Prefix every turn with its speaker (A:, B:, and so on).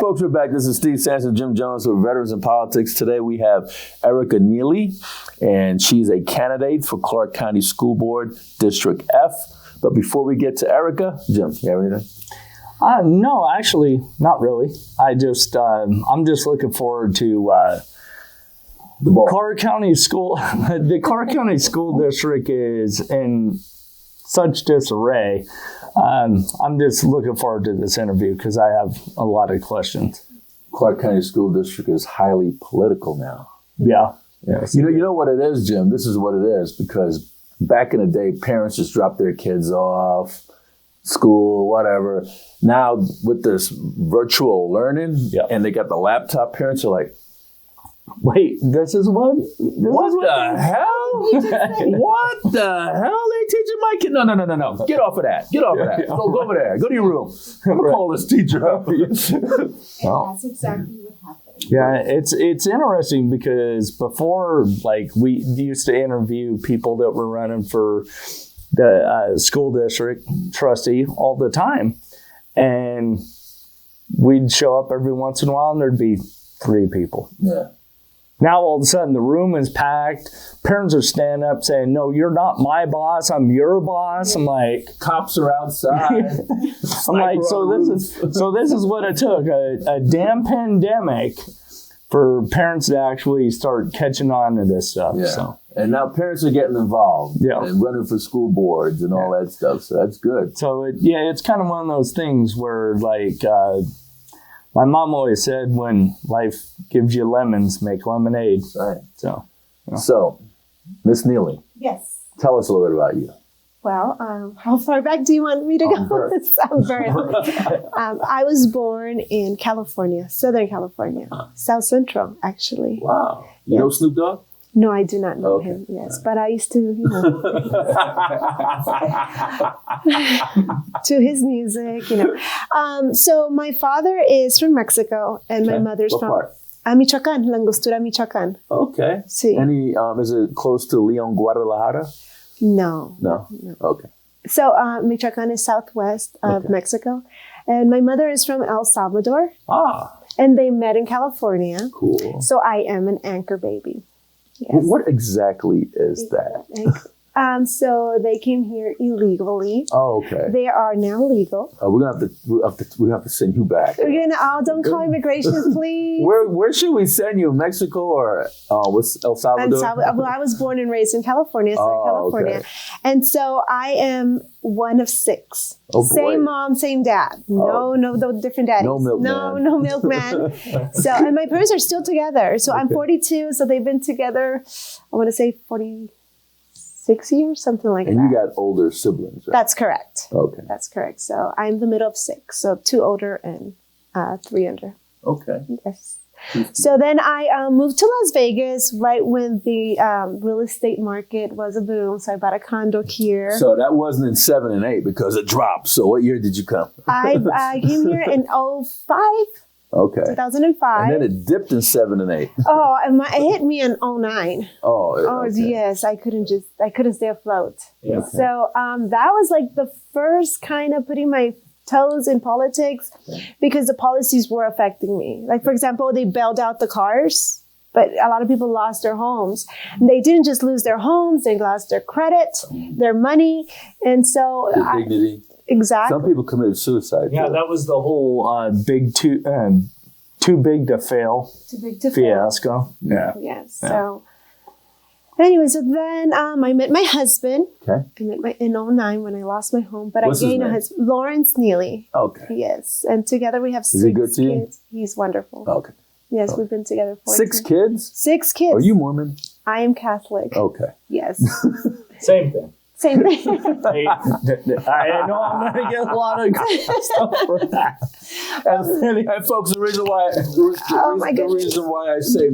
A: folks, we're back. This is Steve Sanchez, Jim Jones with Veterans in Politics. Today we have Erica Neely, and she's a candidate for Clark County School Board District F. But before we get to Erica, Jim, you have anything?
B: Uh, no, actually, not really. I just, uh, I'm just looking forward to uh,
A: The ball.
B: Clark County School. the Clark County School District is in such disarray. Um, I'm just looking forward to this interview because I have a lot of questions.
A: Clark County School District is highly political now.
B: Yeah.
A: You know, you know what it is, Jim. This is what it is because back in the day, parents just dropped their kids off, school, whatever. Now with this virtual learning,
B: Yeah.
A: and they got the laptop. Parents are like,
B: Wait, this is what? This
A: "What
B: is
A: the hell? what the hell? They teaching my kid? No, no, no, no, no. Get off of that. Get off of that. Go, go over there. Go to your room. I'm gonna call this teacher up."
C: And
A: Oh.
B: Wow.
C: that's exactly what happened.
B: Yeah, it's it's interesting because before, like we used to interview people that were running for the uh, school district trustee all the time, and we'd show up every once in a while, and there'd be three people.
A: yeah.
B: Now all of a sudden the room is packed. Parents are standing up saying, "No, you're not my boss. I'm your boss." I'm like,
A: Cops are outside.
B: I'm like,
A: Sniper
B: so
A: on the
B: this is so this is what it took a, a damn pandemic for parents to actually start catching on to this stuff.
A: Yeah.
B: So
A: And now parents are getting involved
B: Yeah.
A: and running for school boards and all that stuff. So that's good.
B: so it, yeah, it's kind of one of those things where like uh, my mom always said, when life gives you lemons, make lemonade.
A: All right.
B: So
A: So, Miss Neely,
C: Yes.
A: tell us a little bit about you.
C: Well, um, how far back do you want me to
A: On
C: go?
A: birth.
C: It's on birth. um, I was born in California, Southern California,
A: Ah.
C: South Central, actually.
A: Wow. You
C: Yeah.
A: know Snoop Dogg?
C: No, I do not know
A: Okay.
C: him. Yes, but I used to, you know, to his music, you know. Um, so my father is from Mexico, and my
A: Okay.
C: mother's
A: What
C: from
A: part?
C: Ah, Michoacan, Langostura, Michoacan.
A: Okay.
C: See,
A: Any, um, is it close to Leon, Guadalajara?
C: no,
A: No. Okay.
C: So uh, Michoacan is southwest of
A: Okay.
C: Mexico, and my mother is from El Salvador,
A: Ah,
C: and they met in California.
A: cool.
C: So I am an anchor baby.
A: Wh- What exactly is that?
C: Like, um, so they came here illegally.
A: Oh, okay.
C: They are now legal.
A: Uh, we're gonna have to, we have to, we have to send you back.
C: We're gonna oh, don't call immigration, please.
A: Where, where should we send you? Mexico or uh, what's El
C: And
A: Salvador?
C: Salva- well, I was born and raised in California, Southern
A: Oh,
C: California,
A: okay.
C: and so I am one of six.
A: Oh, boy.
C: same mom, same dad. No,
A: Oh.
C: no, no, different daddies.
A: No milkman.
C: No, no milkman. so, and my parents are still together. So I'm
A: Okay.
C: 42. So they've been together. I want to say 46 years, something like
A: And
C: that.
A: you got older siblings, right?
C: That's correct.
A: Okay.
C: That's correct. So I'm the middle of six. So two older and uh, three under.
A: Okay.
C: Yes. So then I um, moved to Las Vegas right when the um, real estate market was a boom. So I bought a condo here.
A: So that wasn't in seven and eight because it dropped. So what year did you come?
C: I, I came here in 05,
A: Okay.
C: 2005.
A: And then it dipped in seven and eight.
C: oh, and my, it hit me in 09.
A: Oh,
C: Oh,
A: okay.
C: yes. I couldn't just, I couldn't stay afloat.
A: Yeah.
C: So um, that was like the first kind of putting my toes in politics because the policies were affecting me. Like, for example, they bailed out the cars, but a lot of people lost their homes. And they didn't just lose their homes, they lost their credit,
A: Mm.
C: their money. And so,
A: The
C: I,
A: dignity.
C: exactly.
A: Some people committed suicide.
B: yeah,
A: too.
B: that was the whole uh, big too uh, too big to fail
C: Too big to fail.
B: fiasco. Yeah.
C: Yes.
B: Yeah.
C: So, anyway, so then um, I met my husband.
A: Okay.
C: I met my in 09 when I lost my home, but
A: What's
C: I
A: his
C: gained a
A: name?
C: husband, Lawrence Neely.
A: Okay.
C: Yes, and together we have
A: Is
C: six
A: he good to you?
C: kids. He's wonderful.
A: Okay.
C: yes, we've been together for
A: Six kids?
C: Six kids.
A: Are you Oh. Mormon?
C: I am Catholic.
A: Okay.
C: Yes,
B: Same thing.
C: same thing.
B: Hey, I know I'm gonna get a lot of stuff for that.
A: And folks, the reason why, the,
C: Oh, my
A: the
C: goodness.
A: reason why I say